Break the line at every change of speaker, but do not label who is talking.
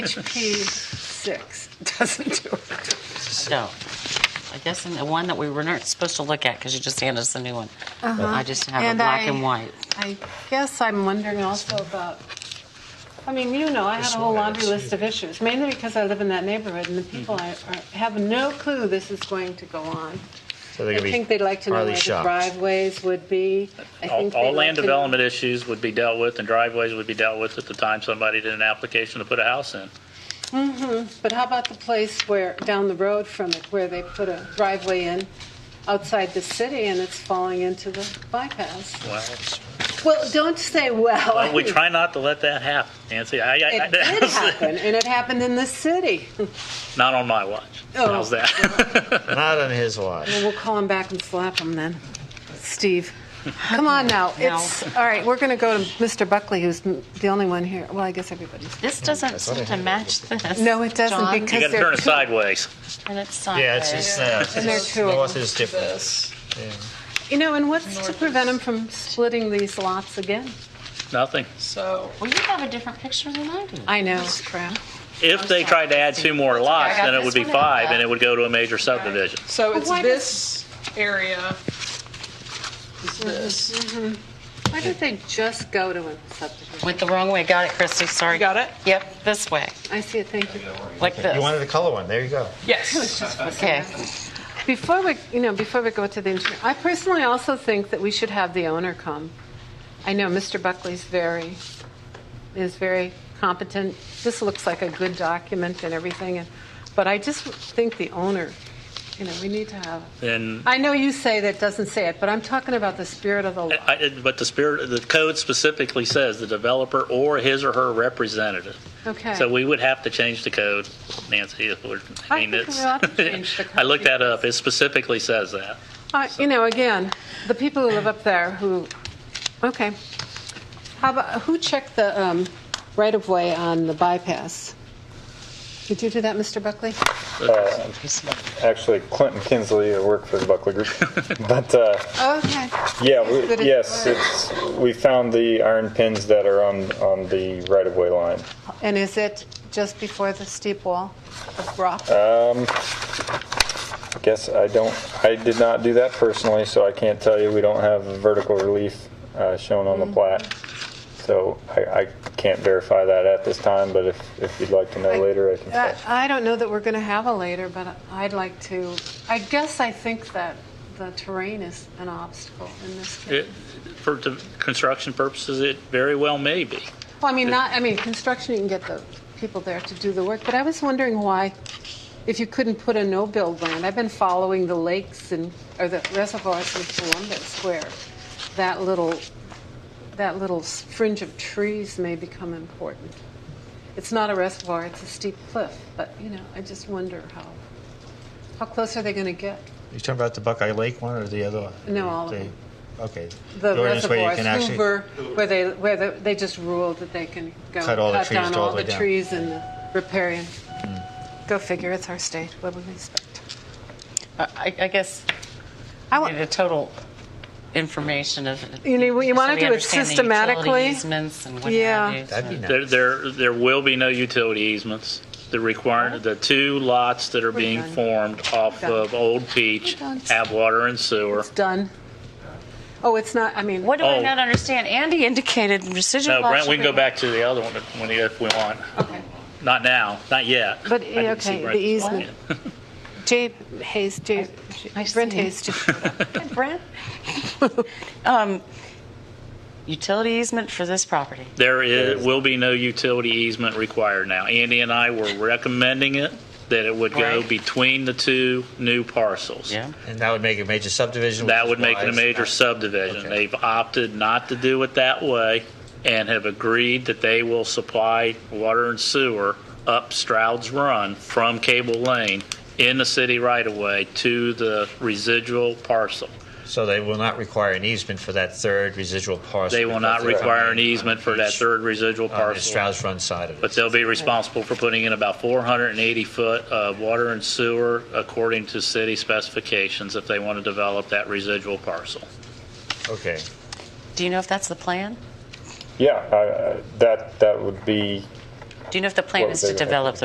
page six doesn't do it.
So, I guess in the one that we were not supposed to look at, because you just handed us the new one. I just have a
Uh-huh. And
black
I-
and white.
I guess I'm wondering also about, I mean, you know, I had a whole laundry list of issues, mainly because I live in that neighborhood and the people I
Mm-hmm.
are- have no clue this is going to go on.
So they're
I
gonna be
think they'd like to know
hardly
where the
shocked.
driveways would be. I
All
think they'd
all
like
land
to know-
development issues would be dealt with and driveways would be dealt with at the time somebody did an application to put a house in.
Mm-hmm, But how about the place where, down the road from it, where they put a driveway in outside the city and it's falling into the bypass?
Well,
Well, don't say well.
but we try not to let that happen, Nancy. I- I- I-
It did happen, and it happened in the city.
Not on my watch.
Oh.
How's that?
Not on his watch.
We'll call him back and slap him then. Steve, come on now. It's, all right, we're going to go to Mr. Buckley, who's m- the only one here. Well, I guess everybody's.
This
Mm,
doesn't seem to match this.
No, it doesn't
John,
because-
You gotta
they're
turn it
too-
sideways.
And it's sideways.
Yeah, it's just uh,
And they're
it's-
two of
north
them.
is different.
This,
Yeah.
You know, and what's to prevent him from splitting these lots again?
Nothing.
so,
Well, you have a different picture than I do.
I know, it's crap.
If they tried to add two more lots,
got
then it
this
would be
one and I
five
got-
and it would go to a major subdivision.
so it's
why
this area is this.
Why don't they just go to a subdivision?
Went the wrong way. Got it, Christy. Sorry.
You got it?
Yep, this way,
I see it, thank you.
like this.
You wanted a color one. There you go.
Yes.
okay.
Before we, you know, before we go to the engineer, I personally also think that we should have the owner come. I know Mr. Buckley's very, is very competent. This looks like a good document and everything, and, but I just think the owner, you know, we need to have.
Then,
I know you say that doesn't say it, but I'm talking about the spirit of the law.
I- I- but the spirit, the code specifically says the developer or his or her representative.
Okay.
So we would have to change the code, Nancy. if we're-
I
I mean,
think we
it's.
ought to change the
I looked
code.
that up. It specifically says that.
Uh, You know, again, the people who live up there who, okay. How about, who checked the um, right-of-way on the bypass? Did you do that, Mr. Buckley?
Actually, Clinton Kinsley, I work for the Buckley Group. but uh,
Okay.
yeah,
But
we,
it-
yes, it's, we found the iron pins that are on, on the right of way line.
And is it just before the steep wall of rock?
I guess I don't, I did not do that personally, so I can't tell you. We don't have vertical relief uh, shown on the plat. So I, I can't verify that at this time, but if, if you'd like to know later, I can.
I
tell.
Uh, I don't know that we're going to have a later, but I'd like to, I guess I think that the terrain is an obstacle in this case.
It- For de- construction purposes, it very well may be.
Well, I mean, not, I mean, construction, you can get the people there to do the work, but I was wondering why, if you couldn't put a no-build land, I've been following the lakes and, or the reservoirs in Columbus where that little, that little fringe of trees may become important. It's not a reservoir, it's a steep cliff, but, you know, I just wonder how, how close are they going to get?
You talking about the Buckeye Lake one or the other one?
No, all of
The-
them.
Okay.
The
The ordinance where you
reservoirs,
can actually-
Hoover, where they, where the- they just ruled that they can go
Cut all the
cut
trees
down
all
all
the way
the
down. Hmm.
trees and the riparian. Go figure, it's our state, what would we expect?
I, I guess
I
I need
want,
the total information of.
You know, you wanna
so we
do it
understand the utility
systematically?
easements and what
Yeah.
have you.
That'd be nice.
There, there, there will be no utility easements. The require, the two lots that are being
done.
formed off
We're done.
of Old Peach
We're done.
have water and sewer.
it's done. Oh, it's not, I mean,
What do I
Oh.
not understand? Andy indicated residual.
No, Brent,
lots
we can
should
go
be-
back to the other one when, you- if we want.
okay.
Not now, not yet.
But,
I didn't see
okay,
Brent's
the easement.
point.
Jay Hayes, Jay, Brent Hayes, just-
Brent? Um, Utility easement for this property.
There is, will be no utility easement required now. Andy and I were recommending it, that it would go
Right.
between the two new parcels.
And that would make it a major subdivision.
That
which
would
is
make it a
wise.
major subdivision.
Okay.
They've opted not to do it that way and have agreed that they will supply water and sewer up Stroud's Run from Cable Lane in the city right of way to the residual parcel.
So they will not require an easement for that third residual parcel.
They will not require an easement for that
Each-
third residual
On the
parcel.
Strauss Run side of it.
But they'll be responsible for putting in about 480 foot of water and sewer according to city specifications if they want to develop that residual parcel.
Okay.
Do you know if that's the plan?
Yeah, I, I, that that would be
Do you know if the plan
What
is
would
to
they-
develop the